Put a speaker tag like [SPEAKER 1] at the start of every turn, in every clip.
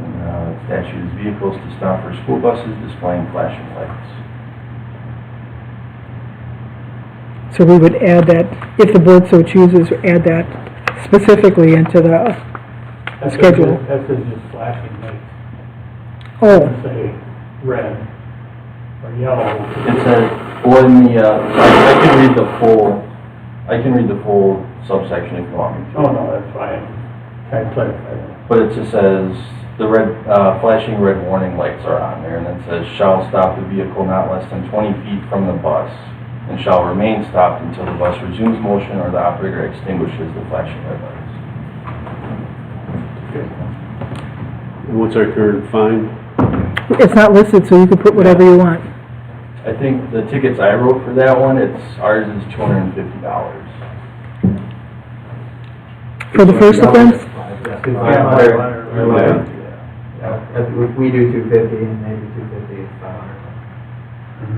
[SPEAKER 1] Uh, Statute is vehicles to stop for school buses displaying flashing lights.
[SPEAKER 2] So we would add that, if the board so chooses, add that specifically into the,
[SPEAKER 3] That's
[SPEAKER 2] Schedule.
[SPEAKER 3] just- That says just flashing lights,
[SPEAKER 2] oh,
[SPEAKER 3] doesn't say red or yellow.
[SPEAKER 1] It says, or in the, uh, I can read the full, I can read the full subsection if you want me to.
[SPEAKER 3] Oh, no, that's fine, trying to clarify that.
[SPEAKER 1] But it just says, the red, uh, flashing red warning lights are on there, and then says, shall stop the vehicle not less than twenty feet from the bus, and shall remain stopped until the bus resumes motion or the operator extinguishes the flashing red lights.
[SPEAKER 4] What's our current fine?
[SPEAKER 2] it's not listed, so you can put whatever you want.
[SPEAKER 1] I think the tickets I wrote for that one, it's, ours is two hundred and fifty dollars.
[SPEAKER 2] For the first offense,
[SPEAKER 5] Yeah.
[SPEAKER 1] Yeah.
[SPEAKER 5] Yeah, if we- we do two fifty and maybe two fifty is five hundred.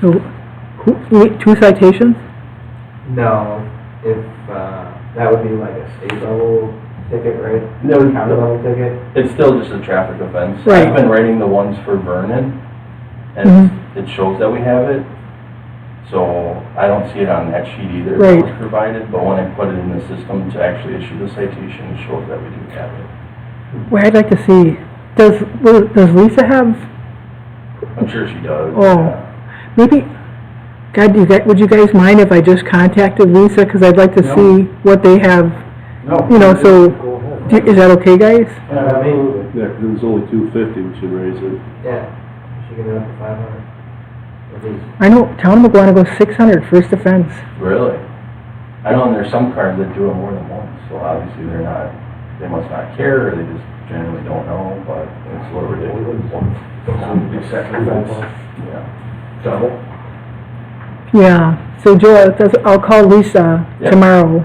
[SPEAKER 2] so, who, wait, two citations?
[SPEAKER 5] No, if, uh, that would be like a state level ticket, right?
[SPEAKER 1] No, no.
[SPEAKER 5] County level ticket?
[SPEAKER 1] It's still just a traffic offense.
[SPEAKER 2] Right.
[SPEAKER 1] I've been writing the ones for Vernon, and
[SPEAKER 2] Mm-hmm.
[SPEAKER 1] it shows that we have it. So I don't see it on that sheet either. that was
[SPEAKER 2] Right.
[SPEAKER 1] Provided, but when I put it in the system to actually issue the citation, it shows that we do have it.
[SPEAKER 2] Where I'd like to see, does, well, does Lisa have,
[SPEAKER 1] I'm sure she does.
[SPEAKER 2] Oh. maybe, God, do you guys, would you guys mind if I just contacted Lisa? Because I'd like to
[SPEAKER 3] No.
[SPEAKER 2] see what they have, you know, so, do- is that okay, guys?
[SPEAKER 5] Yeah, maybe,
[SPEAKER 4] There, there was only two fifty, we should raise it.
[SPEAKER 5] yeah, she can go up to five hundred. At least,
[SPEAKER 2] I know, town of Maguanago, six hundred, first offense.
[SPEAKER 1] Really? I know, and there's some cars that do it more than once, so obviously they're not, they must not care, or they just generally don't know, but it's a little ridiculous. Yeah.
[SPEAKER 5] double?
[SPEAKER 2] Yeah, so Joe, that's, I'll call Lisa
[SPEAKER 1] Yeah.
[SPEAKER 2] tomorrow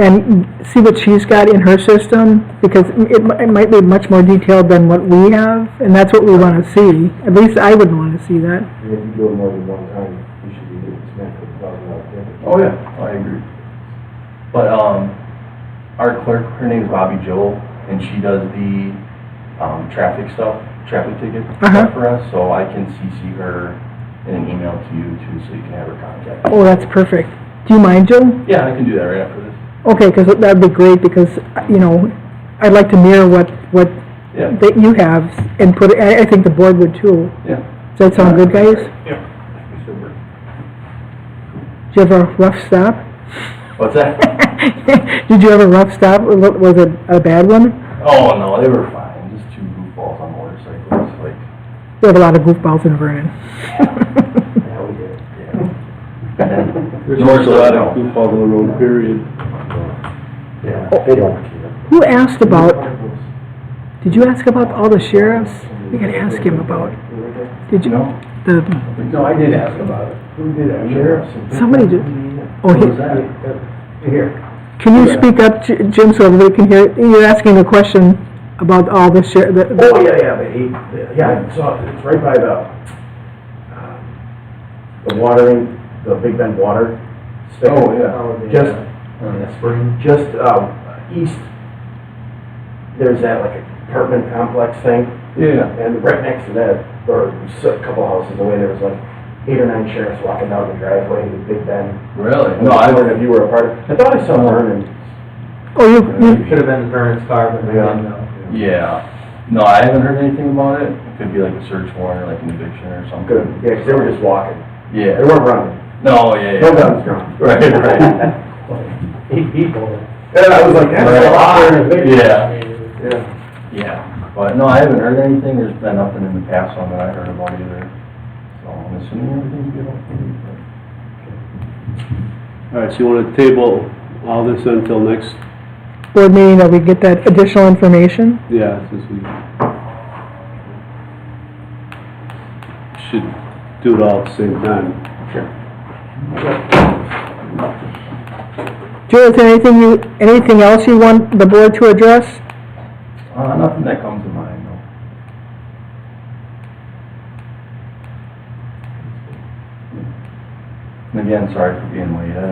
[SPEAKER 2] and see what she's got in her system, because it, mi- it might be much more detailed than what we have, and that's what we wanna see. At least I would wanna see that.
[SPEAKER 6] And if you do it more than one time, you should be getting smacked with a thousand dollar ticket.
[SPEAKER 1] Oh, yeah. I agree. But, um, our clerk, her name's Bobby Joel, and she does the, um, traffic stuff, traffic ticket
[SPEAKER 2] Uh-huh.
[SPEAKER 1] stuff for us, so I can CC her in an email to you too, so you can have her contact.
[SPEAKER 2] Oh, that's perfect. Do you mind, Joe?
[SPEAKER 1] Yeah, I can do that right after this.
[SPEAKER 2] Okay, 'cause that'd be great, because, you know, I'd like to mirror what, what
[SPEAKER 1] Yeah,
[SPEAKER 2] that you have and put, it- I, I think the board would too.
[SPEAKER 1] yeah.
[SPEAKER 2] Does that sound good, guys? Do you have a rough stop?
[SPEAKER 1] What's that?
[SPEAKER 2] Did you have a rough stop? Was it- was it a bad one?
[SPEAKER 1] Oh, no, they were fine, just two goofballs on motorcycles, like,
[SPEAKER 2] We have a lot of goofballs in Vernon.
[SPEAKER 5] Yeah, we do.
[SPEAKER 1] yeah.
[SPEAKER 4] There's
[SPEAKER 1] Yours
[SPEAKER 4] also a lot
[SPEAKER 1] don't.
[SPEAKER 4] of goofballs on the road, period.
[SPEAKER 6] Yeah,
[SPEAKER 2] Oh.
[SPEAKER 6] they don't care.
[SPEAKER 2] Who asked about, did you ask about all the sheriffs? We gotta ask him about, did you,
[SPEAKER 1] No,
[SPEAKER 2] the,
[SPEAKER 6] No, I did ask about it. Who did that? Sheriffs. and-
[SPEAKER 2] Somebody did. oh,
[SPEAKER 6] Who was
[SPEAKER 2] he-
[SPEAKER 6] that?
[SPEAKER 5] Here,
[SPEAKER 2] can you speak up, J- Jim, so everybody can hear? You're asking a question about all the sher, the- the-
[SPEAKER 6] Oh, yeah, yeah, but he, yeah, I saw it, it's right by the, um, the watering, the Big Bend water. station.
[SPEAKER 1] Oh, yeah.
[SPEAKER 5] oh, the,
[SPEAKER 6] Just,
[SPEAKER 5] uh, in the spring,
[SPEAKER 6] just, um, east, there's that like apartment complex thing.
[SPEAKER 1] yeah,
[SPEAKER 6] And right next to that, or s- a couple houses away, there was like eight or nine sheriffs walking down the driveway to Big Bend.
[SPEAKER 1] really?
[SPEAKER 6] No, I wondered if you were a part of, I thought I saw Vernon.
[SPEAKER 2] oh, you, you,
[SPEAKER 5] should have been Vernon's car, but they didn't know.
[SPEAKER 1] Yeah, no, I haven't heard anything about it, it could be like a search warrant or like an eviction or something.
[SPEAKER 6] Good, yeah, 'cause they were just walking. They
[SPEAKER 1] Yeah,
[SPEAKER 6] weren't running.
[SPEAKER 1] no, yeah, yeah.
[SPEAKER 6] No guns drawn.
[SPEAKER 1] Right, right.
[SPEAKER 5] Eight people.
[SPEAKER 6] And I was like, that's a lot.
[SPEAKER 1] Yeah,
[SPEAKER 6] Yeah.
[SPEAKER 1] yeah, but no, I haven't heard anything, there's been nothing in the past on that I heard about either. So I'm assuming everything's good.
[SPEAKER 4] All right, so you want to table all this until next,
[SPEAKER 2] board meeting that we get that additional information?
[SPEAKER 4] yeah, since we should do it all at the same time.
[SPEAKER 2] Joe, is there anything you, anything else you want the board to address?
[SPEAKER 1] Uh, nothing that comes to mind, no. And again, sorry for being late, I